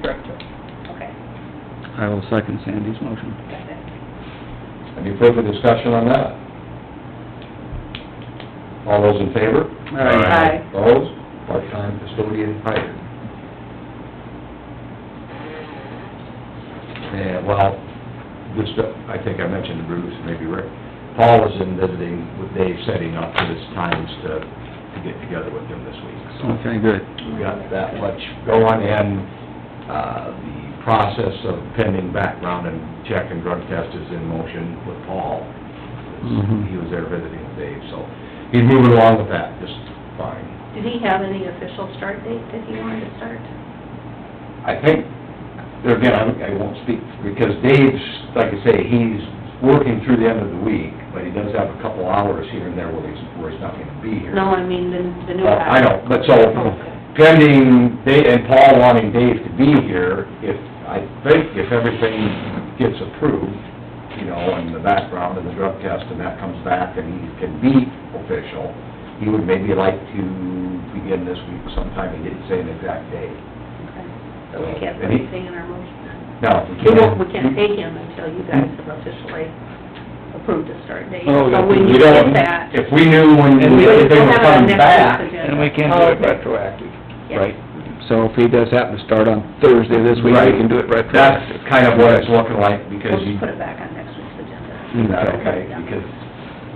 director. Okay, I will second Sandy's motion. got it. Any further discussion on that? All those in favor? Aye. Aye. Opposed? Part-time custodian hired. And, well, this, I think I mentioned to Bruce, maybe Rick, Paul was in visiting with Dave, setting up for his times to, to get together with him this week, so. Okay, good. We got that much going and, uh, the process of pending background and check and drug test is in motion with Paul. Mhm. He was there visiting with Dave, so he's moving along with that just fine. Did he have any official start date that he wanted to start? I think, there again, I I won't speak, because Dave's, like I say, he's working through the end of the week, but he does have a couple hours here and there where he's, where he's not gonna be here. No, I mean, the, the new Well, guy. Uh, I know, but so pending, Da- and Paul wanting Dave to be here, if, I think if everything gets approved, you know, and the background and the drug test and that comes back and he can be official, he would maybe like to begin this week sometime, he didn't say an exact date. Okay. So we can't put anything in our motion then? No, Uh, we We can't. Mm-hmm. don't, we can't take him until you guys have officially approved the start date. Oh, So yeah, we We need to don't, get that. if we knew when And we- they We'll were have it on coming next back, Oh, week's agenda. And we can't do it retroactive. Yeah. Right. So if he does happen to start on Thursday this week, Right. we can do it that's retroactive. kind of what it's looking like, because We'll you... just put it back on next week's agenda. Mm, Is that Mm, okay? Okay. Because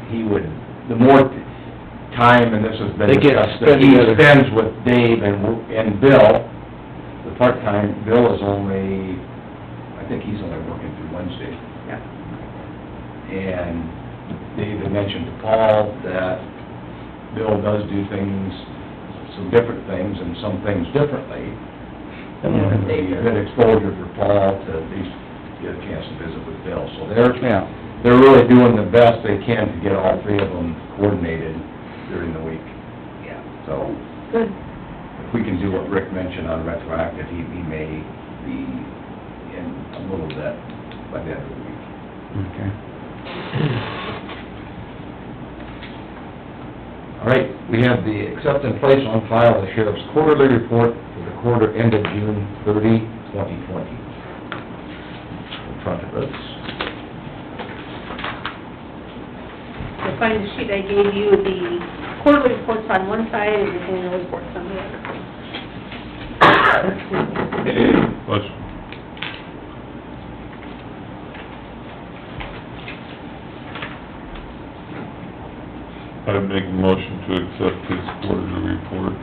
he would, the more time, and this has been They get discussed, that he spent together. spends with Dave and, and Bill, the part-time, Bill is only, I think he's only working through Wednesday. Yeah. And Dave had mentioned to Paul that Bill does do things, some different things, and some things differently. And it'd be a good exposure for Paul to at least get a chance to visit with Bill. So they're, Yeah, they're really doing the best they can to get all three of them coordinated during the week. Yeah. So Good. if we can do what Rick mentioned on retroactive, he, he may be in a little bit by the end of the week. okay. All right, we have the accept and place on file the sheriff's quarterly report for the quarter ended June 30, 2020. In front of us. You'll find the sheet I gave you, the quarterly reports on one side and the annual reports on the other. I make a motion to accept his quarterly report.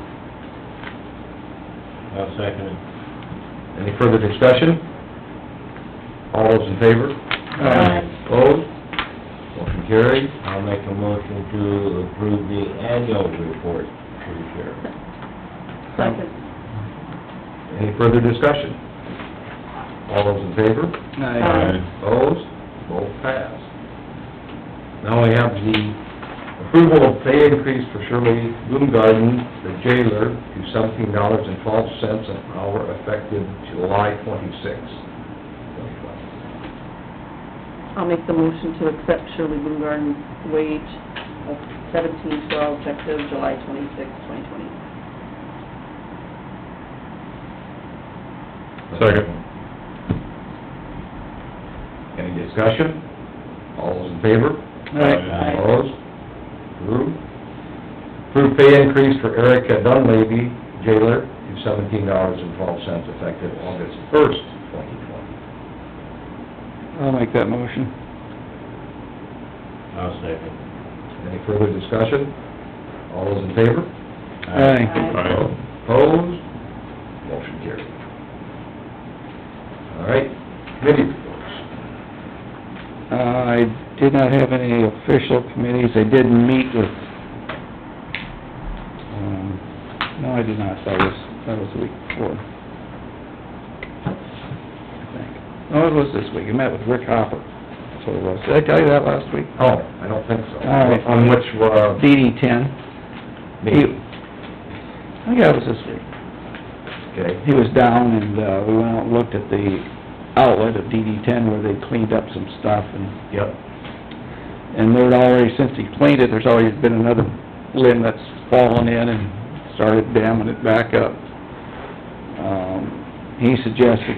I'll second it. Any further discussion? All those in favor? Opposed? Motion carried. I'll make a motion to approve the annual report for the sheriff. Second. Any further discussion? All those in favor? Aye. Opposed? Both passed. Now we have the approval of pay increase for Shirley Bloomgarden, the jailer, to seventeen dollars and twelve cents an hour effective July twenty-sixth. I'll make the motion to accept Shirley Bluegarden's wage of seventeen twelve effective July twenty-sixth, twenty twenty. Second. Any discussion? All those in favor? Aye. Opposed? Approved. Approved pay increase for Erica Dunleavy, jailer, to seventeen dollars and twelve cents effective August first, twenty twenty. I'll make that motion. I'll second. Any further discussion? All those in favor? Aye. Aye. Opposed? Motion carried. All right, committee reports. Uh, I did not have any official committees, I did meet with, um, no, I did not, that was, that was the week before. I think. No, it was this week, I met with Rick Hopper, that's what it was. Did I tell you that last week? Oh, I don't think so. All right. On which, uh, DD ten. meeting? I think that was this week. Okay, He was down and, uh, we went out and looked at the outlet of DD ten where they cleaned up some stuff and yep. And there'd already, since he cleaned it, there's already been another limb that's fallen in and started damming it back up. Um, he suggested